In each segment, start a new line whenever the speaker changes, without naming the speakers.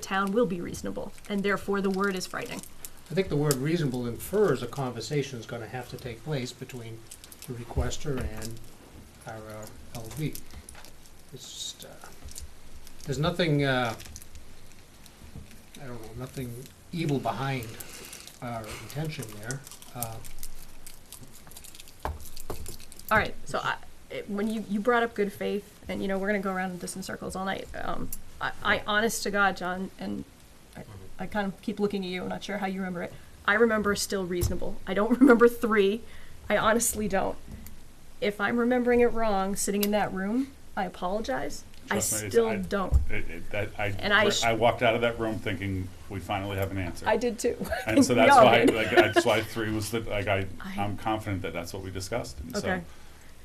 town will be reasonable, and therefore the word is frightening.
I think the word reasonable infers a conversation is gonna have to take place between the requester and our uh, LV. It's just, uh, there's nothing, uh, I don't know, nothing evil behind our intention there. Uh,
All right, so I, it, when you, you brought up good faith, and you know, we're gonna go around this in circles all night. Um, I, I honest to God, John, and I, I kind of keep looking at you, I'm not sure how you remember it. I remember still reasonable. I don't remember three. I honestly don't. If I'm remembering it wrong, sitting in that room, I apologize.
Trust me,
I
it's-
still
I-
don't.
It, it, that, I,
And I sh-
I walked out of that room thinking we finally have an answer.
I did too.
and so
We
that's
all
why,
did.
like, that's why three was the like I,
I-
I am confident that that's what we discussed. And
Okay.
So,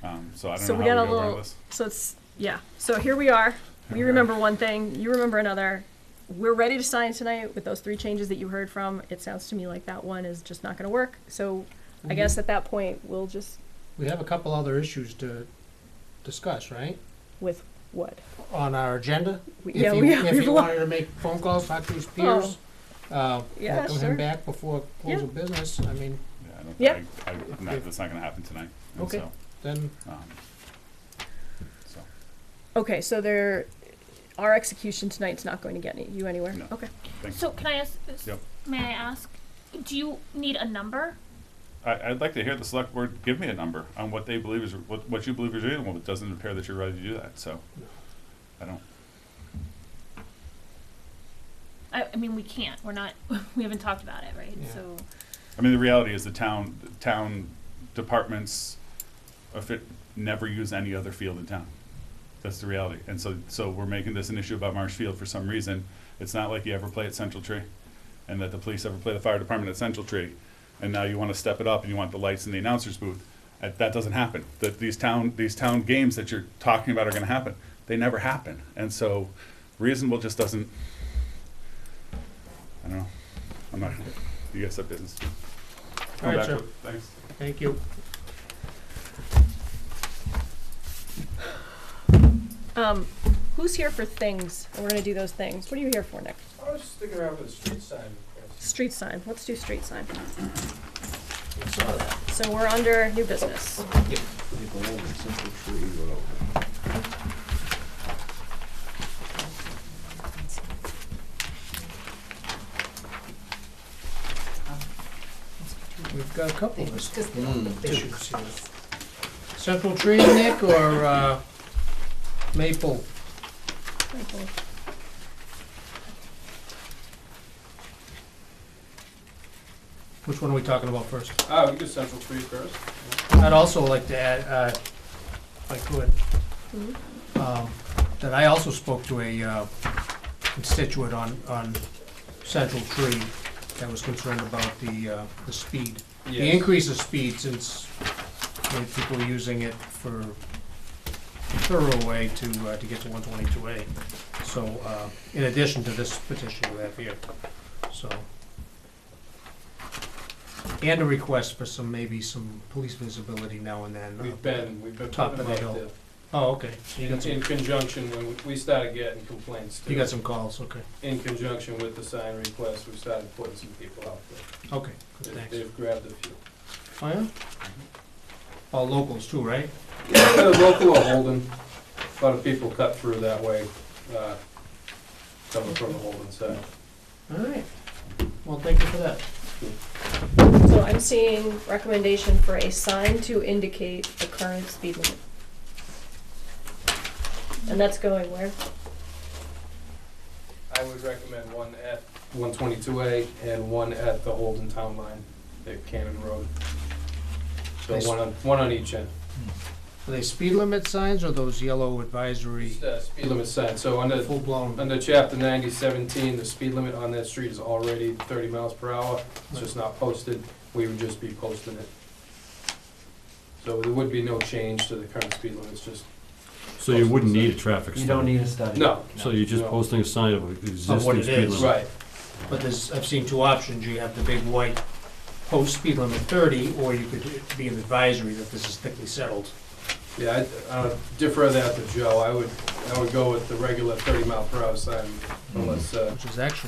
um, so I don't
So
know
we
how
got a
we go
little-
around this.
So it's yeah. So here we are. We
Alright.
remember one thing. You remember another. We're ready to sign tonight with those three changes that you heard from. It sounds to me like that one is just not going to work. So I
Mm-hmm.
guess at that point we'll just
We have a couple other issues to discuss, right,
with what?
on our agenda?
We,
If you,
we
if
we've
you
lo-
wanted to make phone calls, talk to his peers, uh,
Oh. Yeah,
welcome
sure.
him back before close of business, I mean,
Yeah, I don't,
Yep.
I, I, no,
Okay.
that's not going to happen tonight. And
Okay.
So,
then
um, so
Okay, so there, our execution tonight's not going to get any, you anywhere.
No.
Okay.
thanks.
So can I ask? s-
Yep.
May I ask? Do you need a number?
I, I'd like to hear the select board give me a number on what they believe is what, what you believe is reasonable. It doesn't appear that you're ready to do that. So, I don't.
I, I mean, we can't. We're not. We haven't talked about it, right?
Yeah.
So
I mean, the reality is the town, the town departments, if it, never use any other field in town. That's the reality. And so, so we're making this an issue about Marsh Field for some reason. It's not like you ever play at Central Tree and that the police ever play the fire department at Central Tree. And now you want to step it up and you want the lights in the announcer's booth. That, that doesn't happen. That these town, these town games that you're talking about are going to happen. They never happen. And so reasonable just doesn't, I don't know. I'm not, you guys have business. Come
Alright,
back
sir.
with- Thanks.
Thank you.
Um, who's here for things? And we're going to do those things. What are you here for, Nick?
I was sticking around for the street sign request.
Street sign. Let's do street sign.
I saw that.
So we're under new business.
We've got a couple of us-
Mm.
issues here. Central tree, Nick, or uh, maple? Which one are we talking about first?
Ah, we could Central Tree first.
I'd also like to add, uh, if I could, um, that I also spoke to a uh, constituent on, on Central Tree that was concerned about the, uh, the speed. The increase of speed since you know, people are using it for thorough way to, uh, to get to one twenty-two A. So, uh, in addition to this petition we have here, so. And a request for some, maybe some police visibility now and then.
We've been, we've been
Top
talking
of the
about
hill.
the,
Oh, okay, so you got
in
some,
in conjunction, when we started getting complaints
you got
too,
some calls, okay,
in conjunction with the sign request, we started putting some people out there.
okay, good,
They've-
thanks.
They've grabbed a few.
Oh, yeah?
Mhm.
All locals too, right?
The local are holding, a lot of people cut through that way, uh, coming from the Holden side.
All right, well, thank you for that.
So I'm seeing recommendation for a sign to indicate the current speed limit. And that's going where?
I would recommend one at one twenty-two A and one at the Holden Town Line at Cannon Road. So
Nice.
one on, one on each end.
Are they speed limit signs or those yellow advisory,
Just, uh, Speed limit sign, so under,
full-blown?
under chapter ninety seventeen, the speed limit on that street is already thirty miles per hour. It's just not posted, we would just be posting it. So there would be no change to the current speed limit, it's just,
So you wouldn't need a traffic
You don't
study?
need a study.
no,
So you're just
No.
posting a sign of existing
Of what it
speed
is.
limit?
right,
But there's, I've seen two options, you have the big white post speed limit thirty, or you could be an advisory that this is thickly settled.
Yeah, I'd, uh, defer that to Joe, I would, I would go with the regular thirty mile per hour sign unless, uh,
which is actually